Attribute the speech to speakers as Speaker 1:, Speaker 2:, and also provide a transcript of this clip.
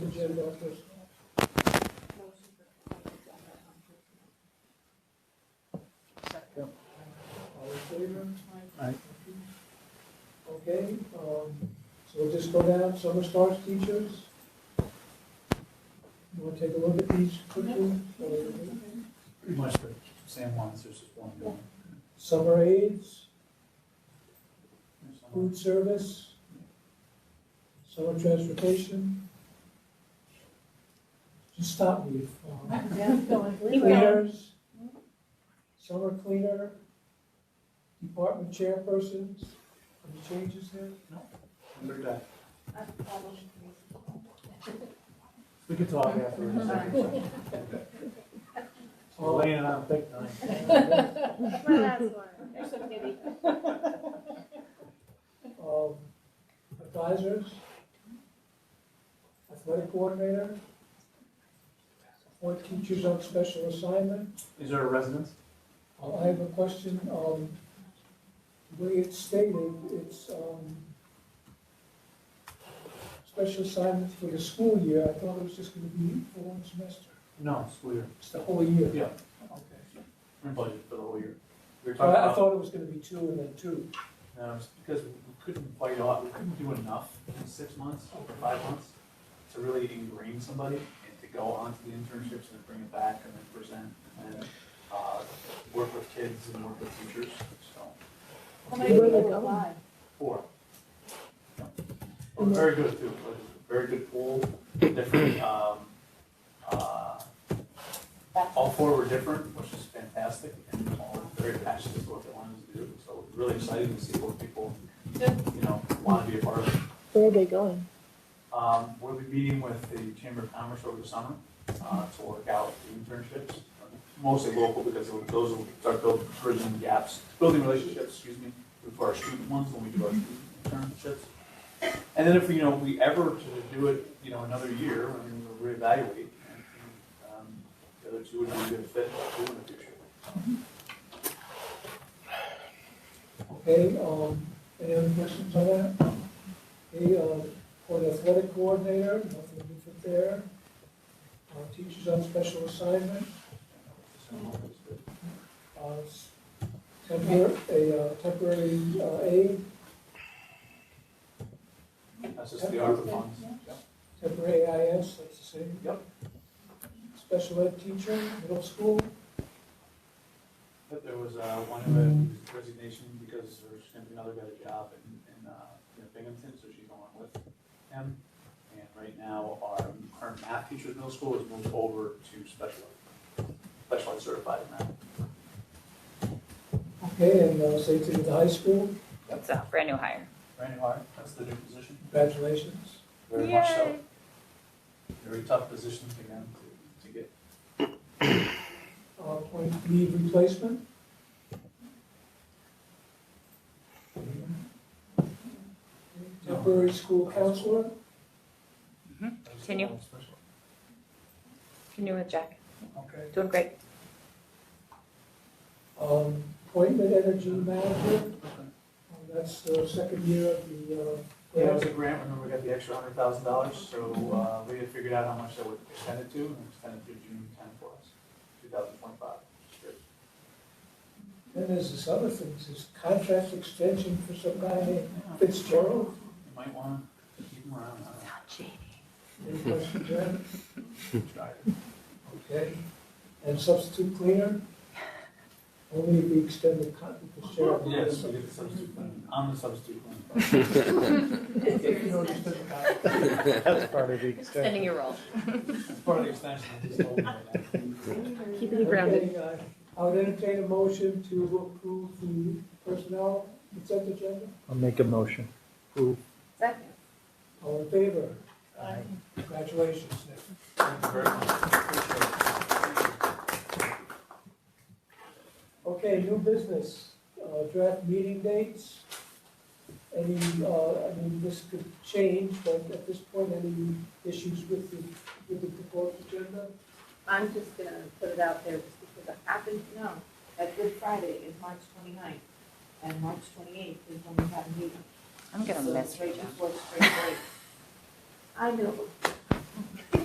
Speaker 1: agenda office. All in favor?
Speaker 2: Aye.
Speaker 1: Okay, um, so we'll just go down, summer starts, teachers. You wanna take a look at these quickly?
Speaker 2: Pretty much the same ones, there's just one going.
Speaker 1: Summer aids, food service, summer transportation. Just stop me if, um,
Speaker 3: Yeah, going, leave going.
Speaker 1: cleaners, summer cleaner, department chairpersons, any changes there?
Speaker 2: Number nine. We could talk afterwards. Elaine and I will take nine.
Speaker 4: My last one. There's so many.
Speaker 1: Um, advisors, athletic coordinator, support teachers on special assignment.
Speaker 2: Is there a residence?
Speaker 1: Uh, I have a question, um, the way it's stated, it's, um, special assignment for the school year, I thought it was just gonna be for one semester,
Speaker 2: No, school year.
Speaker 1: it's the whole year.
Speaker 2: Yeah.
Speaker 1: Okay.
Speaker 2: We're budgeted for the whole year. We were
Speaker 1: So I, I
Speaker 2: talking
Speaker 1: thought it was gonna be two and then two.
Speaker 2: about, um, because we couldn't quite, a lot- we couldn't do enough in six months or five months to really ingrain somebody and to go on to the internships and then bring it back and then present and then, uh, work with kids and work with teachers, so.
Speaker 3: How many people apply?
Speaker 2: Four. Oh, Very good, too, very good pool, different, um, uh, all four were different, which is fantastic, and all very passionate about what they wanted to do, so really excited to see what people, you know, want to be a part of.
Speaker 5: Where are they going?
Speaker 2: Um, we'll be meeting with the Chamber of Commerce over the summer, uh, to work out the internships, mostly local, because those will start building, bridging gaps, building relationships, excuse me, for our student ones when we do our student internships. And then if, you know, we ever to do it, you know, another year, I mean, we'll reevaluate, and, um, the other two would be a good fit, too, in the future.
Speaker 1: Okay, um, any other questions on that? Okay, uh, for the athletic coordinator, nothing different there. Uh, teachers on special assignment,
Speaker 2: So, it's good.
Speaker 1: uh, s- temporary, a uh, temporary uh, aid,
Speaker 2: That's just the ARPA funds.
Speaker 1: temporary AIS, that's the same.
Speaker 2: Yep.
Speaker 1: Special ed teacher, middle school,
Speaker 2: But there was, uh, one of the resignation because there's gonna be another got a job in, in, uh, in Binghamton, so she's going with him. And right now, our current math teacher at middle school has moved over to special ed, special ed certified in math.
Speaker 1: okay, and uh, safety to the high school,
Speaker 6: It's a brand new hire.
Speaker 2: Brandon Hart, that's the new position.
Speaker 1: congratulations.
Speaker 2: Very much so. Very tough position to get, to get.
Speaker 1: Uh, point leave replacement. Temporary school counselor,
Speaker 6: Continue. Continue with Jack.
Speaker 1: okay.
Speaker 6: Doing great.
Speaker 1: Um, appointment energy manager, uh, that's the second year of the, uh,
Speaker 2: Yeah, it
Speaker 1: grant.
Speaker 2: was a grant, remember we got the extra hundred thousand dollars, so, uh, we had figured out how much that would extend it to, and extend it to June ten for us, two thousand twenty-five, which is good.
Speaker 1: Then there's this other thing, this contract extension for some guy named
Speaker 2: Yeah,
Speaker 1: Fitzgerald.
Speaker 2: You might want to keep them around, I
Speaker 1: Any questions there?
Speaker 2: don't know. Try it.
Speaker 1: Okay. And substitute cleaner? Only if we extend the con, Fitzgerald.
Speaker 2: Yes, we get the substitute plan. I'm the substitute plan.
Speaker 1: If you don't extend the contract.
Speaker 2: That's part of the
Speaker 6: Extending your role.
Speaker 2: Part of the extension, I just told you right now.
Speaker 5: Keeping
Speaker 1: Okay, uh, I would entertain a motion to approve the personnel consent agenda.
Speaker 2: I'll make a motion.
Speaker 6: Second.
Speaker 1: All in favor? Congratulations, Nick.
Speaker 2: Thank you very much, appreciate it.
Speaker 1: Okay, new business, uh, draft meeting dates. Any, uh, I mean, this could change, but at this point, any issues with the, with the proposed agenda?
Speaker 3: I'm just gonna put it out there just because I happen to know that Good Friday is March 29th and March twenty-eighth is when we have a meeting.
Speaker 6: I'm gonna
Speaker 3: So
Speaker 6: miss
Speaker 3: it's right
Speaker 6: you, Jack.
Speaker 3: before spring break. I know,